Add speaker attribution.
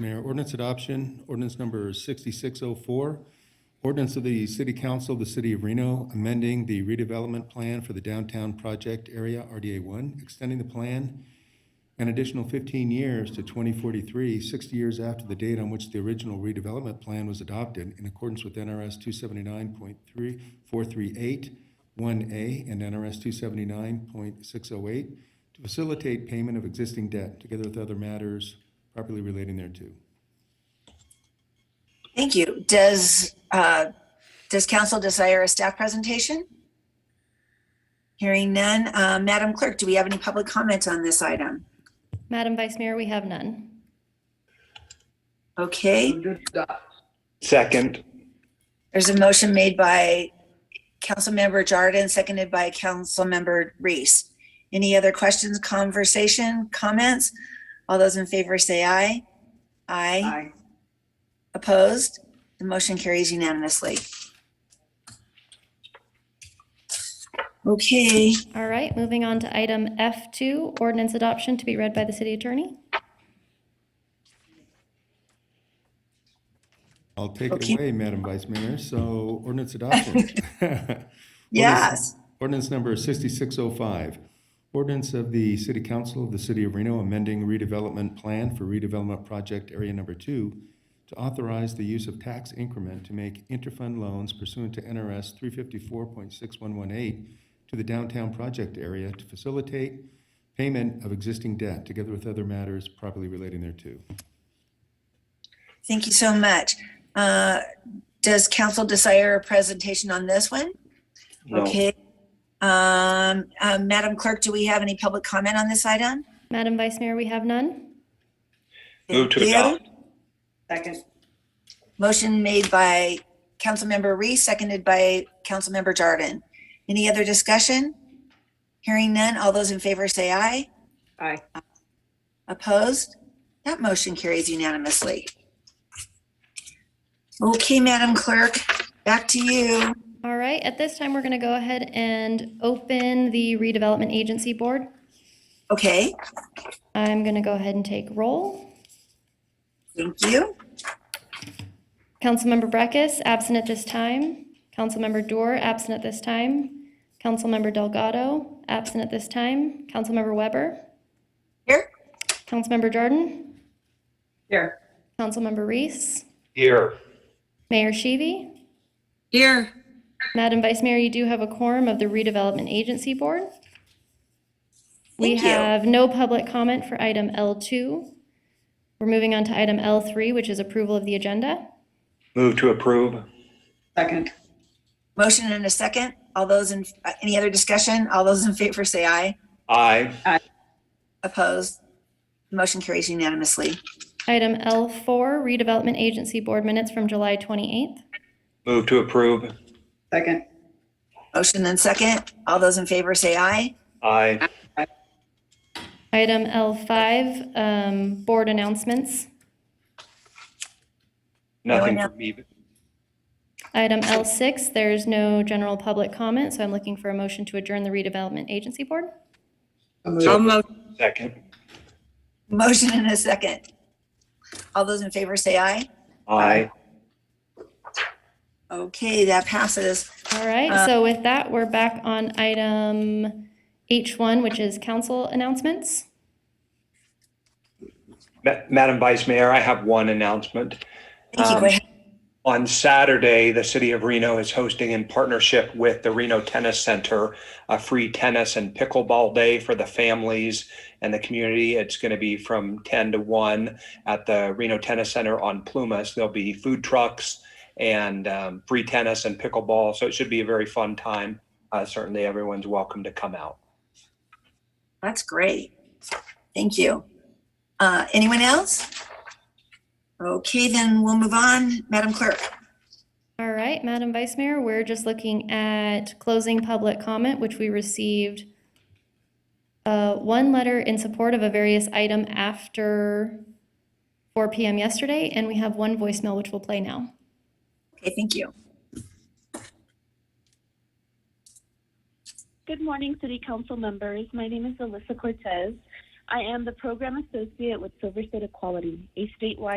Speaker 1: Mayor, ordinance adoption, ordinance number 6604, ordinance of the City Council of the City of Reno amending the redevelopment plan for the downtown project area RDA 1, extending the plan an additional 15 years to 2043, 60 years after the date on which the original redevelopment plan was adopted in accordance with NRS 279.3438-1A and NRS 279.608, to facilitate payment of existing debt, together with other matters properly relating thereto.
Speaker 2: Thank you. Does, uh, does council desire a staff presentation? Hearing none. Uh, Madam Clerk, do we have any public comments on this item?
Speaker 3: Madam Vice Mayor, we have none.
Speaker 2: Okay,
Speaker 4: Second.
Speaker 2: there's a motion made by Councilmember Jordan, seconded by Councilmember Reese. Any other questions, conversation, comments? All those in favor say aye. Aye. Opposed? The motion carries unanimously. Okay,
Speaker 3: All right, moving on to item F2, ordinance adoption to be read by the city attorney.
Speaker 1: I'll take it
Speaker 2: Okay.
Speaker 1: away, Madam Vice Mayor. So ordinance adoption.
Speaker 2: yes.
Speaker 1: Ordinance number 6605, ordinance of the City Council of the City of Reno amending redevelopment plan for redevelopment project area number two to authorize the use of tax increment to make interfund loans pursuant to NRS 354.6118 to the downtown project area to facilitate payment of existing debt, together with other matters properly relating thereto.
Speaker 2: Thank you so much. Uh, Does council desire a presentation on this one?
Speaker 4: No.
Speaker 2: Okay. Um, uh, Madam Clerk, do we have any public comment on this item?
Speaker 3: Madam Vice Mayor, we have none.
Speaker 4: Move to
Speaker 2: Thank you.
Speaker 4: adopt.
Speaker 5: Second.
Speaker 2: Motion made by Councilmember Reese, seconded by Councilmember Jordan. Any other discussion? Hearing none, all those in favor say aye.
Speaker 5: Aye.
Speaker 2: Opposed? That motion carries unanimously. Okay, Madam Clerk, back to you.
Speaker 3: All right, at this time, we're going to go ahead and open the redevelopment agency board.
Speaker 2: Okay,
Speaker 3: I'm going to go ahead and take roll.
Speaker 2: thank you.
Speaker 3: Councilmember Breckus, absent at this time. Councilmember Dorr, absent at this time. Councilmember Delgado, absent at this time. Councilmember Weber,
Speaker 2: Here?
Speaker 3: Councilmember Jordan,
Speaker 5: Here.
Speaker 3: Councilmember Reese,
Speaker 4: Here.
Speaker 3: Mayor Sheevy.
Speaker 5: Here.
Speaker 3: Madam Vice Mayor, you do have a quorum of the Redevelopment Agency Board. We
Speaker 2: Thank you.
Speaker 3: have no public comment for item L2. We're moving on to item L3, which is approval of the agenda.
Speaker 4: Move to approve.
Speaker 5: Second.
Speaker 2: Motion and a second. All those in, uh, any other discussion? All those in favor say aye.
Speaker 4: Aye.
Speaker 2: Opposed? Motion carries unanimously.
Speaker 3: Item L4, Redevelopment Agency Board Minutes from July 28th.
Speaker 4: Move to approve.
Speaker 5: Second.
Speaker 2: Motion and second. All those in favor say aye.
Speaker 4: Aye.
Speaker 3: Item L5, um, Board Announcements.
Speaker 4: Nothing
Speaker 2: No, no.
Speaker 4: from me.
Speaker 3: Item L6, there's no general public comment, so I'm looking for a motion to adjourn the Redevelopment Agency Board.
Speaker 5: So moved.
Speaker 4: Second.
Speaker 2: Motion and a second. All those in favor say aye.
Speaker 4: Aye.
Speaker 2: Okay, that passes.
Speaker 3: All right, so with that, we're back on item H1, which is council announcements.
Speaker 4: Ma- Madam Vice Mayor, I have one announcement.
Speaker 2: Thank you. Go
Speaker 4: Um,
Speaker 2: ahead.
Speaker 4: On Saturday, the city of Reno is hosting in partnership with the Reno Tennis Center, a free tennis and pickleball day for the families and the community. It's going to be from 10 to 1 at the Reno Tennis Center on Plumas. There'll be food trucks and um, free tennis and pickleball. So it should be a very fun time. Uh, certainly, everyone's welcome to come out.
Speaker 2: That's great. Thank you. Uh, anyone else? Okay, then we'll move on. Madam Clerk.
Speaker 3: All right, Madam Vice Mayor, we're just looking at closing public comment, which we received uh, one letter in support of a various item after 4 PM yesterday, and we have one voicemail which we'll play now.
Speaker 2: Okay, thank you.
Speaker 6: Good morning, City Council members. My name is Alyssa Cortez. I am the Program Associate with Silver State Equality, a statewide